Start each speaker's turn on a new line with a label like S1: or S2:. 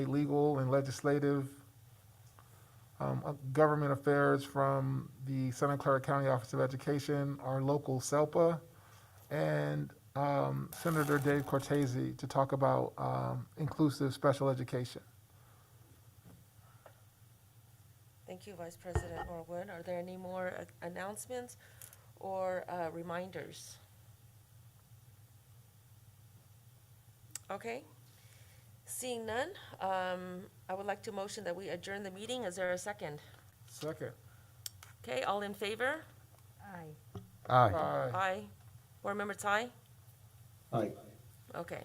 S1: legal and legislative um, uh, government affairs from the Santa Clara County Office of Education, our local SELPA, and um, Senator Dave Cortese to talk about um, inclusive special education.
S2: Thank you, Vice President Norwood. Are there any more uh, announcements or uh, reminders? Okay. Seeing none, um, I would like to motion that we adjourn the meeting. Is there a second?
S1: Second.
S2: Okay, all in favor?
S3: Aye.
S1: Aye.
S2: Aye. Board member Ty?
S4: Aye.
S2: Okay.